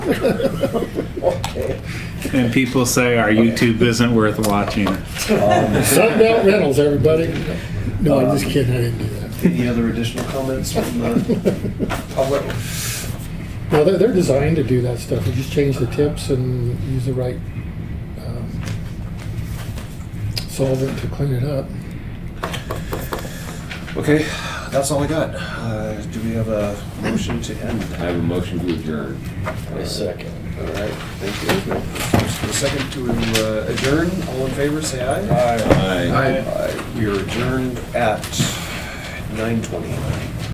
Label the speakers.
Speaker 1: Okay.
Speaker 2: And people say our YouTube isn't worth watching.
Speaker 1: Um,
Speaker 3: Sunbelt Rentals, everybody. No, I'm just kidding, I didn't do that.
Speaker 1: Any other additional comments from the public?
Speaker 3: No, they're, they're designed to do that stuff. You just change the tips and use the right um, solvent to clean it up.
Speaker 1: Okay, that's all I got. Uh, Do we have a motion to end?
Speaker 4: I have a motion to adjourn.
Speaker 5: A second.
Speaker 1: All right, thank you. Motion to Second to uh, adjourn, all in favor, say aye.
Speaker 4: Aye.
Speaker 1: Aye. We are adjourned at 9:20.